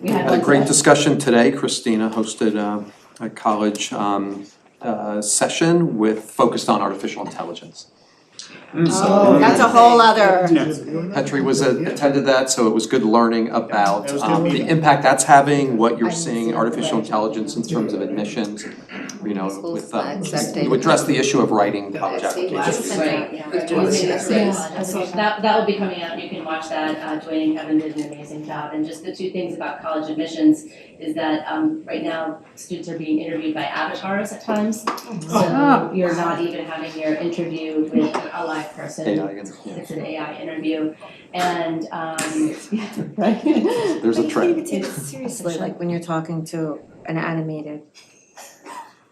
We had Had a one great today. discussion today. Christina hosted um, a college um, uh, session with, focused on artificial intelligence. Oh, that's a whole other, Petri was, a- attended that, so it was good learning about That was good um, the meeting. impact that's having, what you're I didn't see seeing, the artificial way. intelligence in terms of admissions, you know, Schools with, um, not accepting. you address the issue of writing college see, applications. last Right, Yeah. with Yeah. Joyce, yes, yes. Yeah. So that, that will be coming out, you can watch that, uh, Joy and Kevin did an amazing job, and just the two things about college admissions is that, um, right now, students are being interviewed by avatars at times, Oh. so you're not even having your interview with a live person, AI, and, yeah, it's an AI interview, and, um, There's a I trend. can't even take it seriously, It's- like when you're talking to an animated.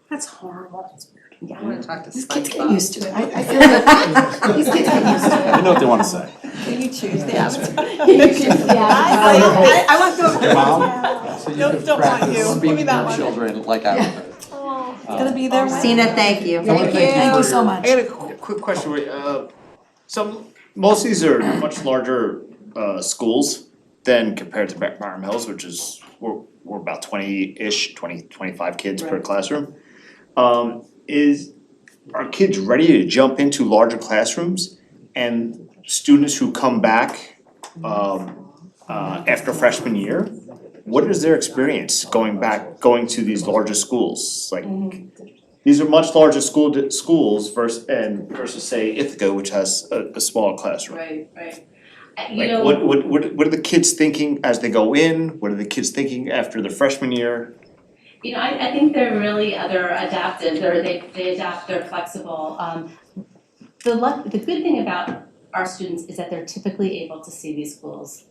That's horrible. I wanna talk to These kids get SpongeBob. used to it, I I feel like these kids get used to I know what they wanna say. it. You choose the avatar. you choose the avatar. uh, I, I want those. Your mom? So you Don't- can don't want practice you. Give me speaking that to one. children like avatars. It's gonna be their way. Christina, thank you. Thank you. Thank you so I much. had a qu- quick question, wait, uh, some, most of these are much larger, uh, schools than compared to Bar- Barnum Hills, which is, we're, we're about twenty-ish, twenty, twenty-five kids per Right. classroom. Um, is, are kids ready to jump into larger classrooms? And students who come back, um, uh, after freshman year, what is their experience going back, going to these larger schools? Like, Mm-hmm. these are much larger school di- schools versus and versus say Ithaca, which has a a smaller classroom. Right, right. Uh, You Like know. what what what what are the kids thinking as they go in? What are the kids thinking after their freshman year? You know, I, I think they're really, uh, they're adaptive, they're, they, they adapt, they're flexible. Um, the luck, the good thing about our students is that they're typically able to see these schools,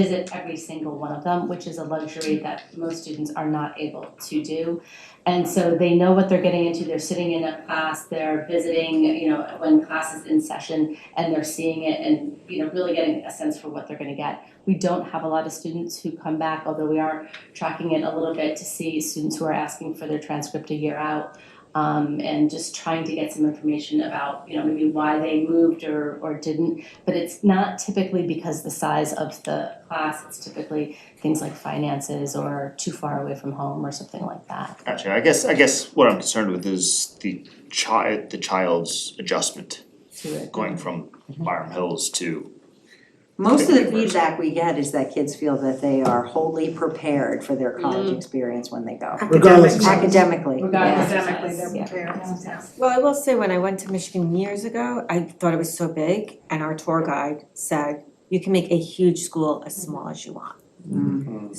visit every single one of them, which is a luxury that most students are not able to do. And so they know what they're getting into, they're sitting in a class, they're visiting, you know, when class is in session, and they're seeing it and, you know, really getting a sense for what they're gonna get. We don't have a lot of students who come back, although we are tracking it a little bit to see students who are asking for their transcript a year out. um, and just trying to get some information about, you know, maybe why they moved or, or didn't. But it's not typically because the size of the class, it's typically things like finances or too far away from home or something like that. Gotcha, I guess I guess what I'm concerned with is the child the child's adjustment to it. going from Byram Hills to Most of the Particularly versus- feedback we get is that kids feel that they are wholly prepared for their Mm. college experience when they go. Regardless of size. Academically, Regardless of Academically, size, they're yeah. prepared. Well, I will say, when I went to Michigan years ago, I thought it was so big, and our tour guide said, you can make a huge school as small as you want.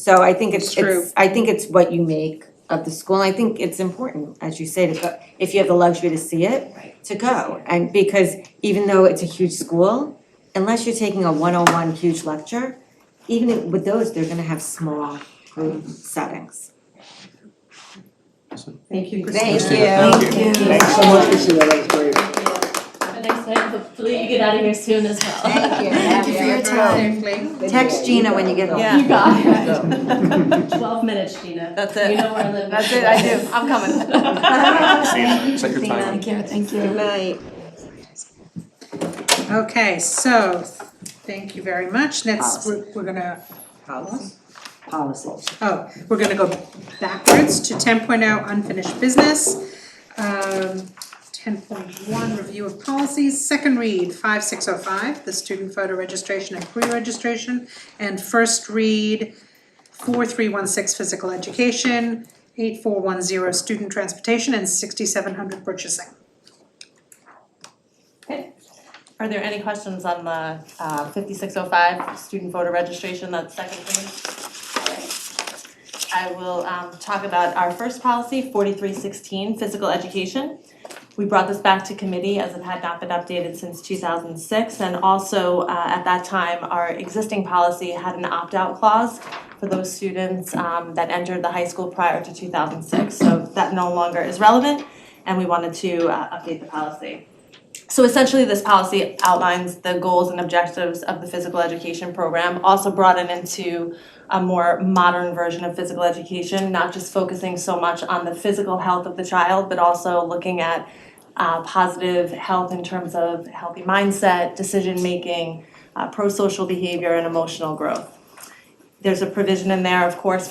So I think it's, It's true. it's, I think it's what you make of the school, and I think it's important, as you say, to go, if you have the luxury to see it, Right. to go. And because even though it's a huge school, unless you're taking a one-on-one huge lecture, even if- with those, they're gonna have small group settings. Thank you. Thank Christina, you. thank you. Thanks so much, Christina, that was great. Have a nice night, hopefully you get out of here soon as well. Thank you. Thank you for your time. Text Gina when you get home. Yeah. You got it. Yeah. Twelve minutes, Gina. That's You it. know where I live. That's it, I do. I'm coming. Christina. Set your timer. Thank you, thank you. Good night. Okay, so, thank you very much. Next, Policy. we're, we're gonna, Policies. oh, we're gonna go backwards to ten oh, unfinished business. Um, ten point one, review of policies, second read, five six oh five, the student photo registration and pre-registration. And first read, four three one six, physical education, eight four one zero, student transportation, and sixty-seven hundred purchasing. Are there any questions on the uh, 5605 student voter registration, that's second page? Alright. I will um, talk about our first policy, 4316, physical education. We brought this back to committee as it had not been updated since 2006. And also, uh, at that time, our existing policy had an opt-out clause for those students um, that entered the high school prior to 2006. So that no longer is relevant, and we wanted to uh, update the policy. So essentially, this policy outlines the goals and objectives of the physical education program, also brought it into a more modern version of physical education, not just focusing so much on the physical health of the child, but also looking at uh, positive health in terms of healthy mindset, decision-making, uh, pro-social behavior, and emotional growth. There's a provision in there, of course,